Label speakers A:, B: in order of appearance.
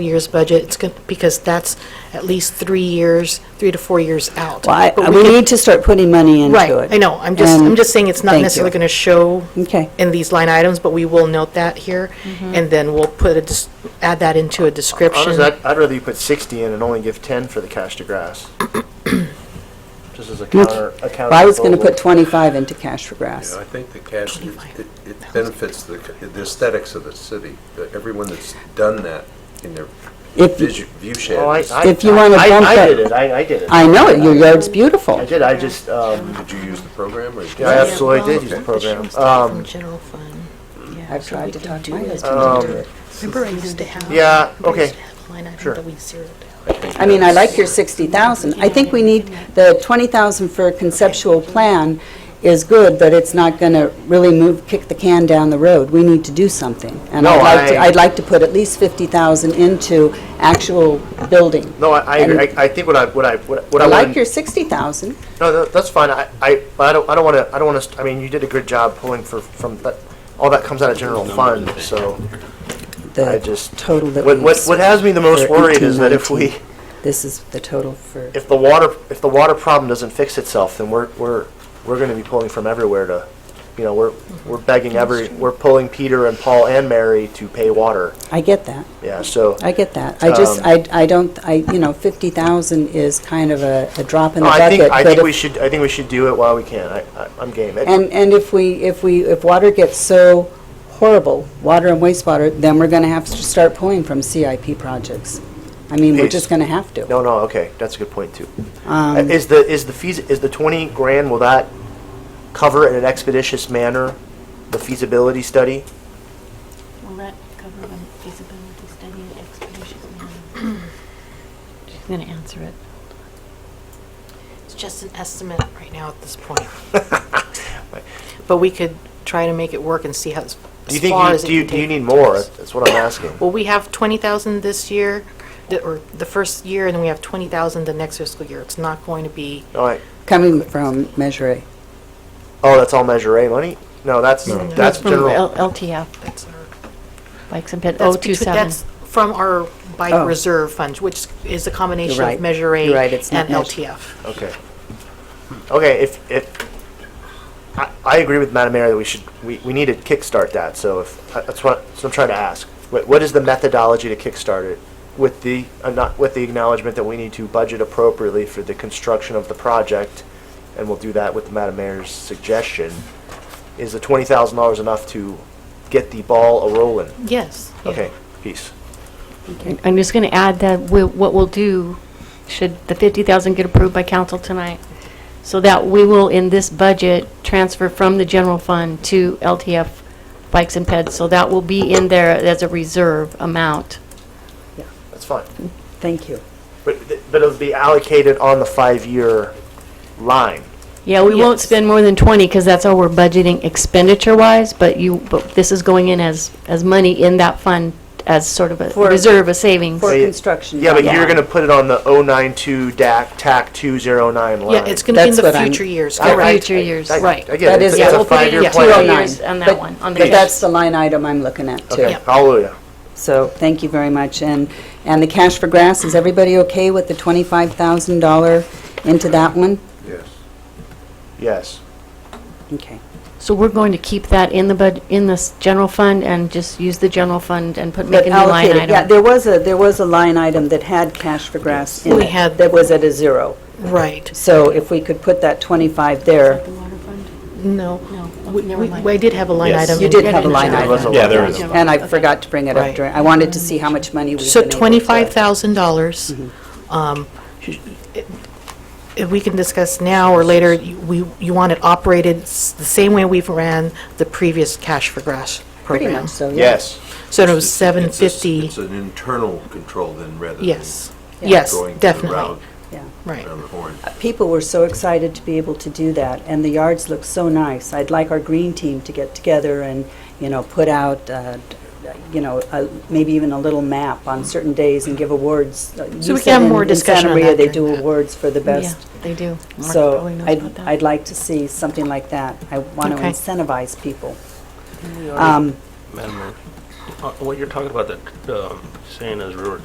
A: year's budget, it's good, because that's at least three years, three to four years out.
B: Well, I-
A: But
B: we
A: could-
B: need to start putting money into it.
A: Right, I know, I'm just,
B: And
A: I'm just saying it's not
B: thank
A: necessarily
B: you.
A: going to show
B: Okay.
A: in these line items, but we will note that here, and then we'll put a, dis- add that into a description.
C: Honestly, I'd, I'd rather you put 60 in and only give 10 for the cash to grass. Just as a counter, a counter.
B: Well, I was going to
C: proposal.
B: put 25 into cash for grass.
D: Yeah, I think the cash, it
A: 25.
D: it benefits the the aesthetics of the city, that everyone that's done that in their
B: If-
D: visu- view shed.
C: Oh, I-
D: is-
C: I-
B: If you wanna
C: I-
B: bump
C: I
B: it-
C: did it, I, I did it.
B: I know, it. your yard's
C: I
B: beautiful.
C: did, I just, um,
D: Did you use the program or?
C: yeah, I absolutely did use the
D: Okay.
C: program.
A: From
C: Um,
A: general fund.
B: I've tried to talk to my husband.
C: um,
A: Remember I used to have.
C: Yeah,
A: remember I used
C: okay.
A: to have a line item
C: Sure.
A: that we zeroed out.
B: I mean, I like your 60,000. I think we need, the 20,000 for a conceptual plan is good, but it's not going to really move, kick the can down the road. We need to do something. And
C: No,
B: I'd like to,
C: I-
B: I'd like to put at least 50,000 into actual building.
C: No, I, I,
B: And
C: agree. I I think what I, what I, what what
B: I
C: I
B: like your
C: wanted,
B: 60,000.
C: no, no, that's fine, I, I, but I don't, I don't want to, I don't want to, I mean, you did a good job pulling for, from, that. all that comes out of general fund, so I
B: the
C: just.
B: total that we...
C: What, what, what has me the most
B: for
C: worried is that if
B: 18,
C: we,
B: 19. This is the total for,
C: if the water, if the water problem doesn't fix itself, then we're, we're, we're gonna be pulling from everywhere to, you know, we're, we're begging every, we're pulling Peter and Paul and Mary to pay water,
B: I get that.
C: yeah, so.
B: I get that. I just,
C: Um,
B: I, I don't, I, you know, 50,000 is kind of a, a drop in the
C: No, I
B: bucket.
C: think, I
B: but
C: think
B: if-
C: we should, I think we should do it while we can, I, I- I'm game. It-
B: And, and if we, if we, if water gets so horrible, water and wastewater, then we're going to have to start pulling from CIP projects. I mean, we're
C: Yes.
B: just going to have to. Um,
C: No, no, okay, that's a good point too.
A: Um,
C: Uh, Is the, is the fees, is the twenty grand, will that cover in an expeditious manner the feasibility study?
E: Will that cover the feasibility study and expeditious manner? She's going to answer it.
A: It's just an estimate right now at this point. But we could try to make it work and see how, as
C: Do you
A: as far
C: think,
A: as it
C: you- do you,
A: can
C: do you
A: take.
C: need more? That's what I'm asking.
A: Well, we have 20,000 this year, the- or the first year, and then we have 20,000 the next fiscal year. It's not going to be,
C: All right.
B: Coming from Measure A.
C: Oh, that's all Measure A money? No, that's, that's general.
E: LTF,
A: that's our,
E: like and Pit
A: that's between, that's from our bike
B: Oh.
A: reserve funds, which is a combination
B: You're
A: of
B: right.
A: Measure A
B: You're right, it's not
A: and
B: measure-
A: LTF.
C: Okay. Okay, if, if, I, I agree with Madam Mayor that we should, we, we need to kickstart that, so if, I- that's what, so I'm trying to ask. What, what is the methodology to kickstart it? With the, uh, not, with the acknowledgement that we need to budget appropriately for the construction of the project, and we'll do that with Madam Mayor's suggestion. Is the twenty thousand dollars enough to get the ball a-rolling?
A: Yes. yeah.
C: Okay, peace.
E: I'm just going to add that we- what we'll do, should the 50,000 get approved by council tonight, so that we will, in this budget, transfer from the general fund to LTF bikes and peds. So that will be in there as a reserve amount.
C: That's fine.
B: Thank you.
C: But, th- but it'll be allocated on the five-year line.
E: Yeah, we won't
A: Yes.
E: spend more than 20, because that's all we're budgeting expenditure-wise, but you, but this is going in as, as money in that fund as sort of a
B: For-
E: reserve, a savings.
B: For
C: you-
B: construction.
C: Yeah, but
B: not
C: you're
B: bond.
C: gonna put it on the 092 DAC, TAC 209 line.
A: Yeah, it's going to be in
B: That's what
A: the
B: I'm-
A: future years,
E: For
A: correct?
E: future years,
C: I-
E: right.
C: I get
B: That
C: it, it's
B: is-
C: it's
B: yeah,
C: a
B: we'll put it
C: five-year
B: in
C: plan.
E: two oh nine.
B: 209.
E: years on that
B: But-
E: one, on the
B: But
E: cash.
B: that's the line item I'm looking at, too.
C: Okay, hallelujah.
B: So, thank you very much. And, and the cash for grass, is everybody okay with the $25,000 into that one?
D: Yes.
C: Yes.
B: Okay.
E: So we're going to keep that in the bud, in this general fund, and just use the general fund and put, make a new line
B: allocated. Yeah,
E: item.
B: there was a, there was a line item that had cash for grass in
A: We
B: it
A: had-
B: That was at a zero.
A: Right.
B: So if we could put that 25 there,
A: No.
E: No,
A: We-
E: never
A: we-
E: mind.
A: I did have a line
F: Yes.
A: item.
B: you
A: in-
B: did have a line
C: There was a
B: item.
F: Yeah,
C: line
F: there
C: item.
F: is.
B: And I forgot to bring it up
A: Right.
B: during, I wanted to see how much money we've
A: So
B: been able to-
A: $25,000,
B: Mm-hmm.
A: um, it- it- we can discuss now or later, you- we, you want it operated s- the same way we've ran the previous Cash for Grass
B: Pretty
A: program.
B: much, so, yeah.
C: Yes.
A: So it was
D: It's- it's a s-
A: 750,
D: It's an internal control then, rather than.
A: yes, yes,
D: going um, to the
A: definitely,
D: round-
B: Yeah.
A: right.
D: Round the horn.
B: People were so excited to be able to do that, and the yards look so nice. I'd like our green team to get together and, you know, put out, uh, you know, a- maybe even a little map on certain days and give awards. Uh,
A: So we can have more discussion on
B: In Santa Maria,
A: that
B: they
A: during
B: do
A: that.
B: awards for the
E: Yeah,
B: best
E: they do. Mark
B: So
E: probably knows about
B: I'd,
E: that.
B: I'd like to see something like that. I want to
A: Okay.
B: incentivize people. Um,
G: Madam Mayor, uh, what you're talking about, that um, saying is we were